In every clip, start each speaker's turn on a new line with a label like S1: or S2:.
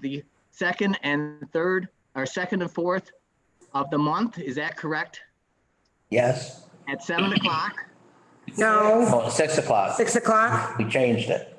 S1: the second and third, or second and fourth of the month, is that correct?
S2: Yes,
S1: At seven o'clock?
S3: No,
S2: oh, six o'clock.
S3: six o'clock?
S2: We changed it.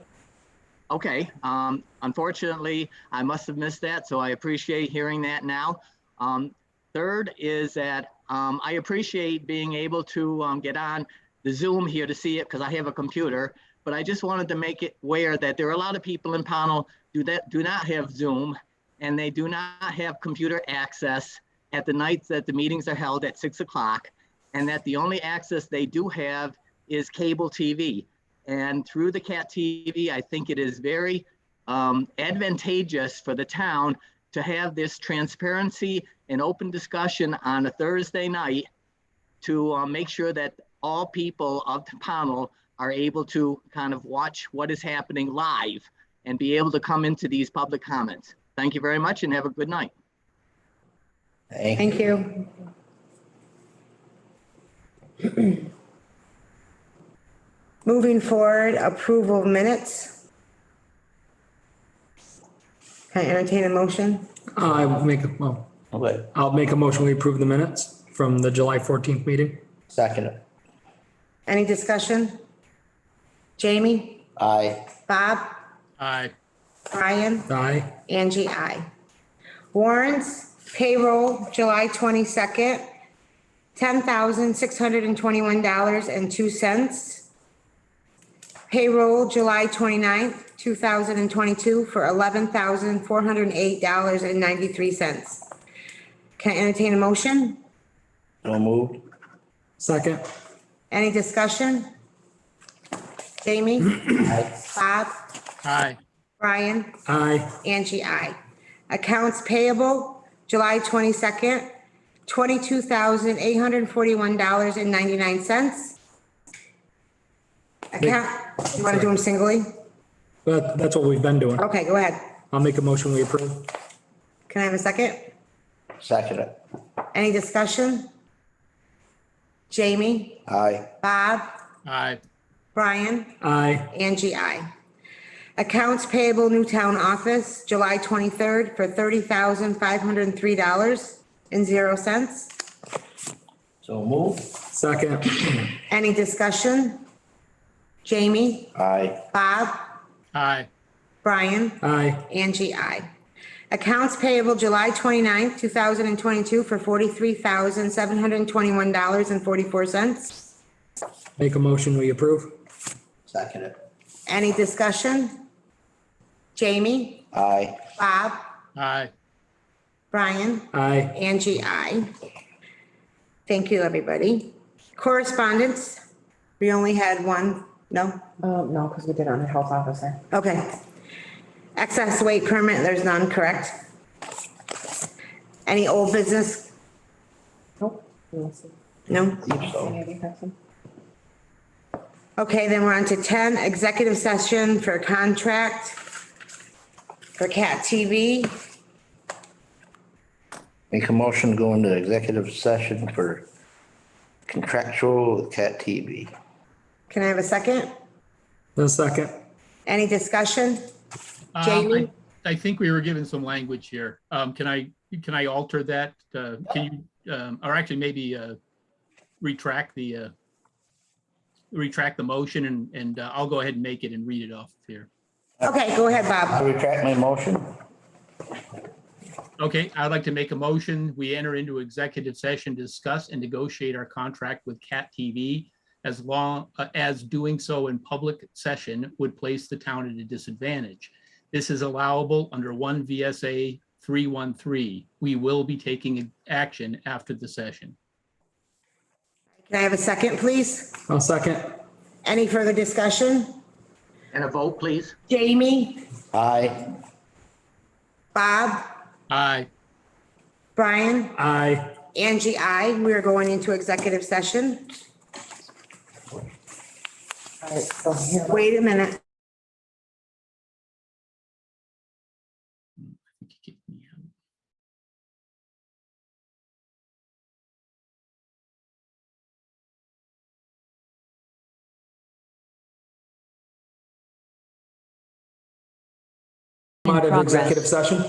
S1: Okay, um, unfortunately, I must have missed that, so I appreciate hearing that now. Um, third is that, um, I appreciate being able to, um, get on the Zoom here to see it because I have a computer. But I just wanted to make it aware that there are a lot of people in panel do that, do not have Zoom and they do not have computer access at the nights that the meetings are held at six o'clock. And that the only access they do have is cable TV. And through the CAT TV, I think it is very um, advantageous for the town to have this transparency and open discussion on a Thursday night to uh, make sure that all people of the panel are able to kind of watch what is happening live and be able to come into these public comments. Thank you very much and have a good night.
S2: Thank you.
S3: Thank you. Moving forward, approval of minutes. Can I entertain a motion?
S4: I will make, a- well,
S2: Okay,
S4: I'll make a motion, we approve the minutes from the July 14th meeting.
S2: second,
S3: Any discussion? Jamie,
S2: aye,
S3: Bob,
S4: Aye.
S3: Brian,
S4: Aye.
S3: Angie, I. Warrants, payroll, July twenty-second, ten thousand, six hundred and twenty-one dollars and two cents. Payroll, July 29th, thousand and twenty-two, for eleven thousand, four hundred and eight dollars and ninety-three cents. Can I entertain a motion?
S2: so moved,
S4: Second.
S3: Any discussion? Jamie,
S2: aye,
S3: Bob,
S4: Aye.
S3: Brian?
S4: Aye.
S3: Angie, I. Accounts payable, July 22nd, $22,841.99. Account, you want to do them singly?
S4: That, that's what we've been doing.
S3: Okay, go ahead.
S4: I'll make a motion, we approve.
S3: Can I have a second?
S2: second,
S3: Any discussion? Jamie,
S2: aye,
S3: Bob,
S4: Aye.
S3: Brian?
S4: Aye.
S3: Angie, I. Accounts payable Newtown office, July 23rd for $30,503.00.
S2: so moved,
S4: Second.
S3: Any discussion? Jamie,
S2: aye,
S3: Bob,
S4: Aye.
S3: Brian,
S4: Aye.
S3: Angie, I. Accounts payable July 29th, 2022 for $43,721.44.
S4: Make a motion, we approve.
S2: second,
S3: Any discussion? Jamie,
S2: aye,
S3: Bob,
S5: um,
S4: Aye.
S3: Brian,
S4: Aye.
S3: Angie, I. Thank you, everybody. Correspondence, we only had one, no?
S6: Uh, no, because we did on the health officer.
S3: Okay. Excess weight permit, there's none, correct? Any old business?
S6: Nope. Unless you-
S3: No?
S2: believe so,
S6: Maybe have some.
S3: Okay, then we're on to ten, executive session for contract for CAT TV.
S2: make a motion to go into executive session for contractual with Cat TV,
S3: Can I have a second?
S4: The second.
S3: Any discussion?
S5: Um,
S3: Jamie?
S5: I I think we were given some language here. Um, can I, can I alter that? Uh, can you, um, or actually maybe, uh, retract the, uh, retract the motion and, and uh, I'll go ahead and make it and read it off here.
S3: Okay, go ahead,
S2: I
S3: Bob.
S2: retract my motion,
S5: Okay, I'd like to make a motion. We enter into executive session, to discuss and negotiate our contract with Cat TV. As long uh, as doing so in public session would place the town at a disadvantage. This is allowable under one VSA three one three. We will be taking action after the session.
S3: Can I have a second, please?
S4: I'll second.
S3: Any further discussion?
S1: And a vote, please.
S3: Jamie,
S2: aye,
S3: Bob,
S5: Aye.
S3: Brian,
S4: Aye.
S3: Angie, I, we are going into executive session.
S6: All right, so here.
S3: Wait a minute.
S4: Out of
S7: progress.
S4: executive session?